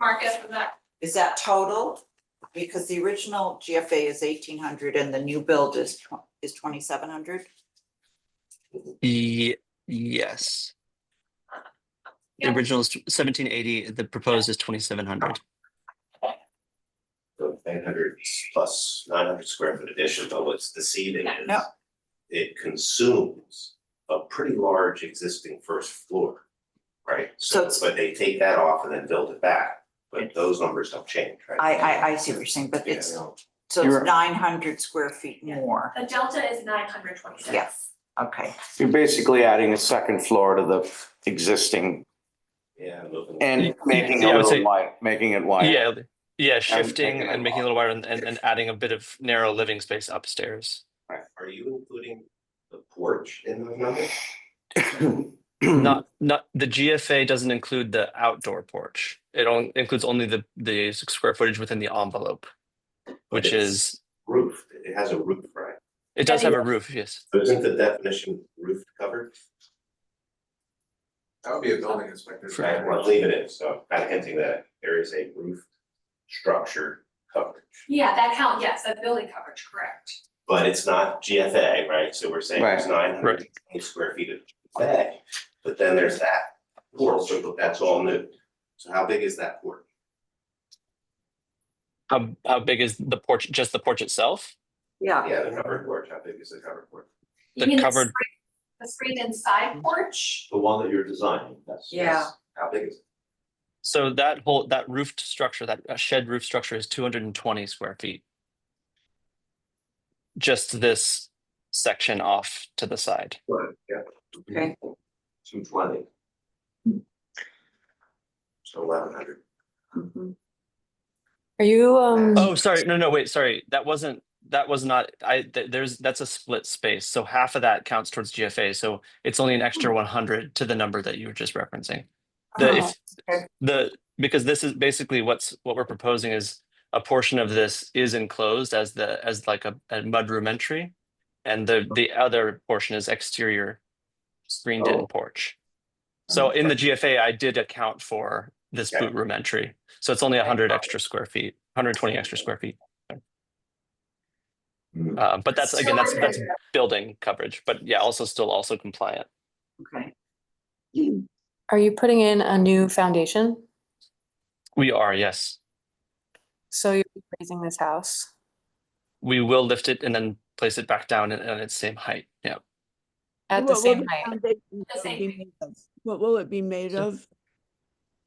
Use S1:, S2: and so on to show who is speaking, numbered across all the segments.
S1: Mark after that.
S2: Is that total? Because the original GFA is eighteen hundred and the new build is tw- is twenty seven hundred?
S3: Ye- E, yes. The
S1: Yeah.
S3: original is seventeen eighty, the proposed is twenty-seven hundred.
S4: So nine hundred plus nine hundred square foot addition, but what's deceiving is
S2: No.
S4: it consumes a pretty large existing first floor, right?
S2: So it's-
S4: But they take that off and then build it back, but those numbers don't change, right?
S2: I I I see what you're saying, but
S4: Yeah,
S2: it's
S4: no.
S2: so
S5: You're-
S2: it's nine hundred square feet more.
S1: The delta is nine hundred twenty-six.
S2: Yes. Okay,
S5: You're basically adding a second floor to the existing
S4: Yeah. moving-
S5: and making it
S3: Yeah, I
S5: a
S3: would say-
S5: little wide, making it wider.
S3: Oh, Yeah, yeah, shifting
S5: taking it
S3: and making it a little wider and, and, and adding a bit of narrow living space upstairs.
S4: Are you including the porch in those numbers?
S3: Not, not, the GFA doesn't include the outdoor porch. It only includes only the, the square footage within the envelope. Which
S4: it's-
S3: is,
S4: Roof, it has a roof, right?
S3: it does have a roof, yes.
S4: So Isn't the definition roof covered?
S6: That would be a building inspector.
S4: I want to leave it in, so I'm kind of hinting that there is a roof structure coverage.
S1: Yeah, that count, yes, that building coverage, correct.
S4: But it's not GFA, right? So we're saying there's nine hundred
S3: Right.
S4: square feet of GFA, but then there's that porch, so that's all new. So how big is that porch?
S3: How, how big is the porch, just the porch itself?
S2: yeah,
S4: Yeah, the covered porch, how big is the covered porch?
S1: You
S3: The
S1: mean
S3: covered-
S1: screen- The screened inside porch,
S4: The one that you're designing, that's.
S2: Yeah.
S4: that's- How big is it?
S3: So that whole, that roofed structure, that uh, shed roof structure is two hundred and twenty square feet. Just this section off to the side.
S4: Yeah.
S2: Okay.
S4: Two twenty. So eleven hundred.
S2: mhm.
S7: Are you, um,
S3: Oh, sorry, no, no, wait, sorry, that wasn't, that was not, I, th- there's, that's a split space, so half of that counts towards GFA, so it's only an extra one hundred to the number that you were just referencing. The,
S7: Oh,
S2: okay.
S3: if, the, because this is basically what's, what we're proposing is a portion of this is enclosed as the, as like a, a mudroom entry. And the, the other portion is exterior screened in
S4: Oh.
S3: porch. So in the GFA, I did account for this
S4: Okay.
S3: boot room entry, so it's only hundred extra square feet, hundred twenty extra square feet.
S4: Hmm.
S3: Uh, but that's, again, that's, that's
S1: Storage.
S3: building coverage, but yeah, also still also compliant.
S2: Oh, okay.
S7: are you putting in a new foundation?
S3: We are, yes,
S7: So you're raising this house?
S3: we will lift it and then place it back down at, at its same height, yeah.
S7: At the
S8: What will
S7: same height?
S8: foundation
S1: same
S8: be made of? What will it be made
S3: So-
S8: of?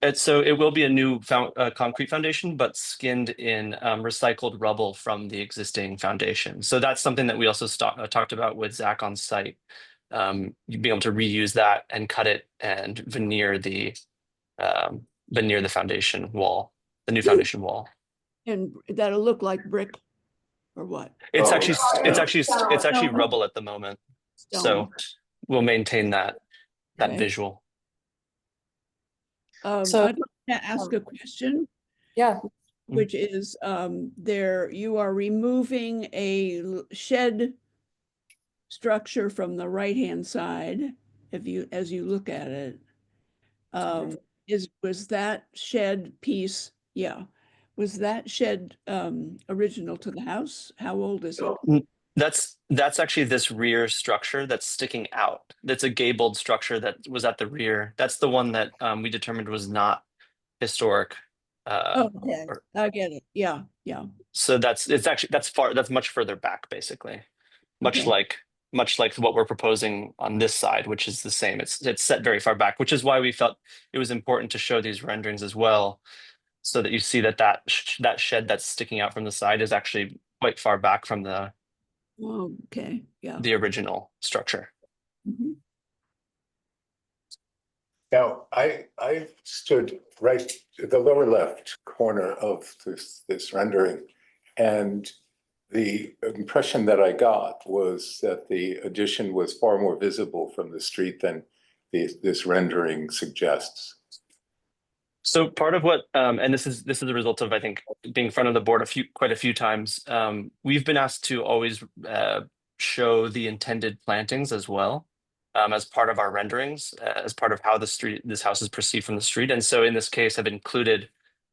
S3: And so it will be a new found, uh, concrete foundation, but skinned in um, recycled rubble from the existing foundation. So that's something that we also sta- uh, talked about with Zach on site. Um, you'd be able to reuse that and cut it and veneer the um, veneer the foundation wall, the new foundation wall.
S8: And that'll look like brick or what?
S3: It's
S4: Oh,
S3: actually s-
S4: yeah.
S3: it's actually s- it's
S8: Yeah.
S3: actually rubble at the moment. So
S8: Stone.
S3: we'll maintain that that
S8: Okay.
S3: visual.
S8: Um, I'd
S7: So- Oh.
S8: like to ask a question,
S7: Yeah,
S3: Mm.
S8: which is, um, there, you are removing a l- shed structure from the right-hand side, if you, as you look at it. Um, is, was that shed piece, yeah, was that shed, um, original to the house? How old is it?
S4: So
S3: That's that's actually this rear structure that's sticking out. That's a gabled structure that was at the rear. That's the one that um, we determined was not historic. Uh,
S8: Oh, Okay,
S3: or-
S8: I get it. Yeah, yeah.
S3: so that's it's actually that's far that's much further back basically, much
S8: Okay.
S3: like much like what we're proposing on this side, which is the same. It's it's set very far back, which is why we felt it was important to show these renderings as well, so that you see that that sh- that shed that's sticking out from the side is actually quite far back from the
S8: Okay, yeah.
S3: the original structure.
S8: Mhm.
S9: Now, I, I stood right, at the lower left corner of this, this rendering. And the impression that I got was that the addition was far more visible from the street than this, this rendering suggests.
S3: So part of what, um, and this is this is a result of I think being in front of the board a few quite a few times. Um, we've been asked to always uh, show the intended plantings as well um, as part of our renderings, uh, as part of how the street this house is perceived from the street. And so in this case, I've included